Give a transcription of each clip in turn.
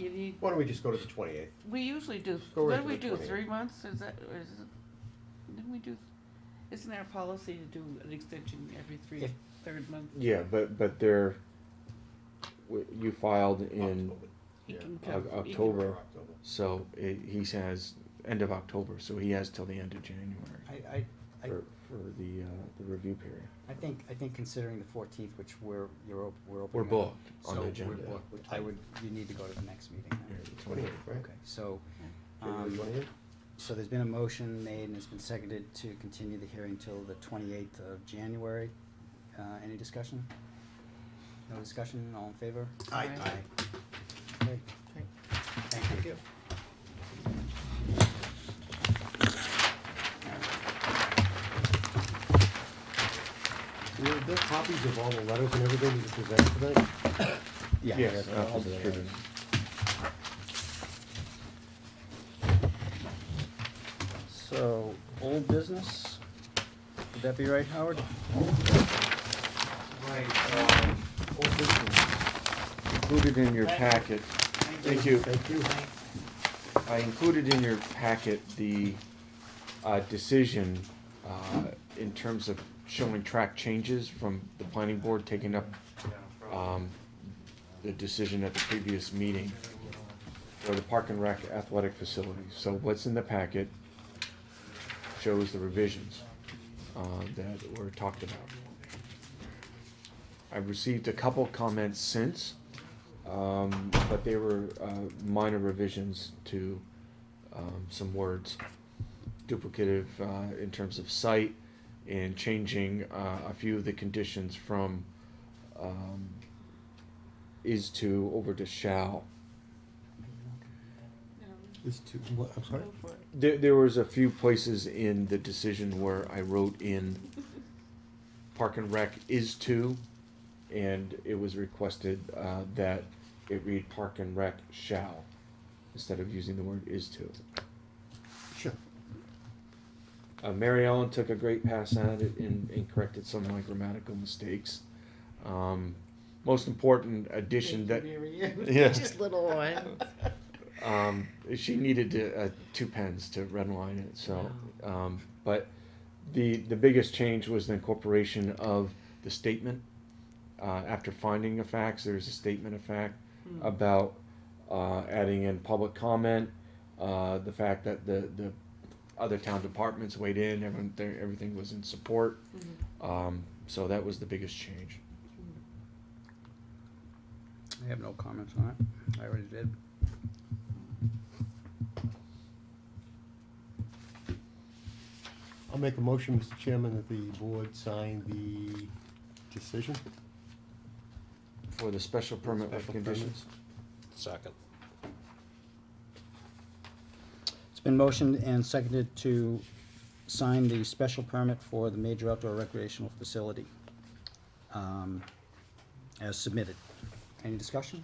we, Why don't we just go to the twenty-eighth? we usually do, Go what do right to we the do, 28. three months, is that, or is it, didn't we do, isn't there a policy to do an extension every three, If- third month? Yeah, but, but they're, w- you filed in He Yeah. can come- Oc- he can- October, so it, he says, end of October, so he has till the end of January I, I, I, for, for the, uh, the review period. I think, I think considering the fourteenth, which we're, you're, op- we're opening. We're up- booked on so the we're agenda. booked, which I would, you need to go to the next meeting Yeah, then. the 28th. Twenty-eighth, right? Okay, so, January um, 28th? so there's been a motion made and it's been seconded to continue the hearing till the twenty-eighth of January. Uh, any discussion? No discussion, all in favor? Aye. Aye. Okay, thank you. Were there copies of all the letters and everything you presented tonight? Yes, Yeah. I'll distribute it. So, old business, would that be right, Howard? Right, um, old business. Included in your packet, thank you. Thank you. I included in your packet the uh, decision uh, in terms of showing track changes from the planning board taking up Yeah, probably. um, the decision at the previous meeting for the park and rec athletic facilities. So what's in the packet shows the revisions uh, that were talked about. I've received a couple comments since, um, but they were uh, minor revisions to um, some words. Duplicative uh, in terms of site and changing uh, a few of the conditions from um, is to over to shall. No, This two, what, I'm sorry? Go for it. There, there was a few places in the decision where I wrote in Park and Rec is to, and it was requested, uh, that it read Park and Rec shall, instead of using the word is to. Sure. Uh, Mary Ellen took a great pass at it and, and corrected some of my grammatical mistakes. Um, most important addition that. Yeah. Just little one. Um, she needed to, uh, two pens to redline it, so, um, but the, the biggest change was the incorporation of the statement. Uh, after finding of facts, there's a statement of fact about, uh, adding in public comment, uh, the fact that the, the other town departments weighed in, everyone, there- everything was in support. Mhm. Um, so that was the biggest change. I have no comments on it, I already did. I'll make a motion, Mr. Chairman, that the board sign the decision. For the special permit with Special conditions. Second. It's been motioned and seconded to sign the special permit for the major outdoor recreational facility, um, as submitted. Any discussion?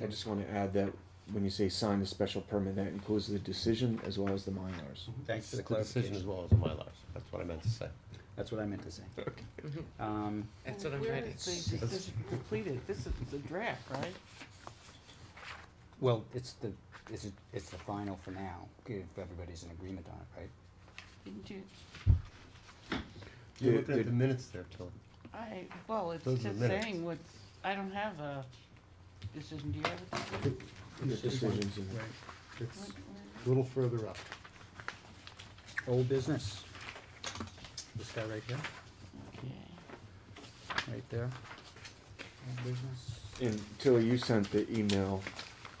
I just want to add that when you say sign the special permit, that includes the decision as well as the minors. Thanks for the Decision as clarification. well as the Mylars, that's what I meant to say. That's what I meant to say. Um, That's what I'm Where ready. is the- This is completed, this is the draft, right? well, it's the, it's, it's the final for now, if everybody's in agreement on it, right? Didn't you, You're The- looking at the- the minutes there, Tilly. I, well, it's Those are just minutes. saying what's, I don't have a decision, do you have a decision? The decisions and- It's What- where- a little further up. Old business. This guy right here, Okay. right there. Old business. And Tilly, you sent the email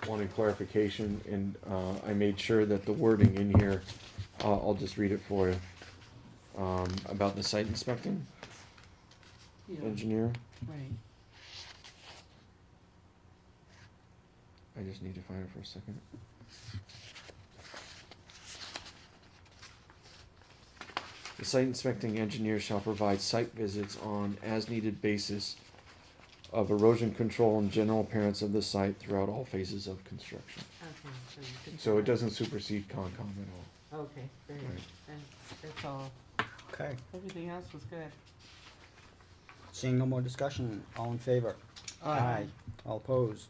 wanting clarification, and uh, I made sure that the wording in here, uh, I'll just read it for you. Um, About the site inspecting Yeah, engineer, right. I just need to find it for a second. The site inspecting engineer shall provide site visits on as-needed basis of erosion control and general appearance of the site throughout all phases of construction. Okay, so you can. So it doesn't supersede Concom at all. Okay, very Right. good. And that's all. Okay. Everything else was good. Seeing no more discussion, all in favor? All opposed?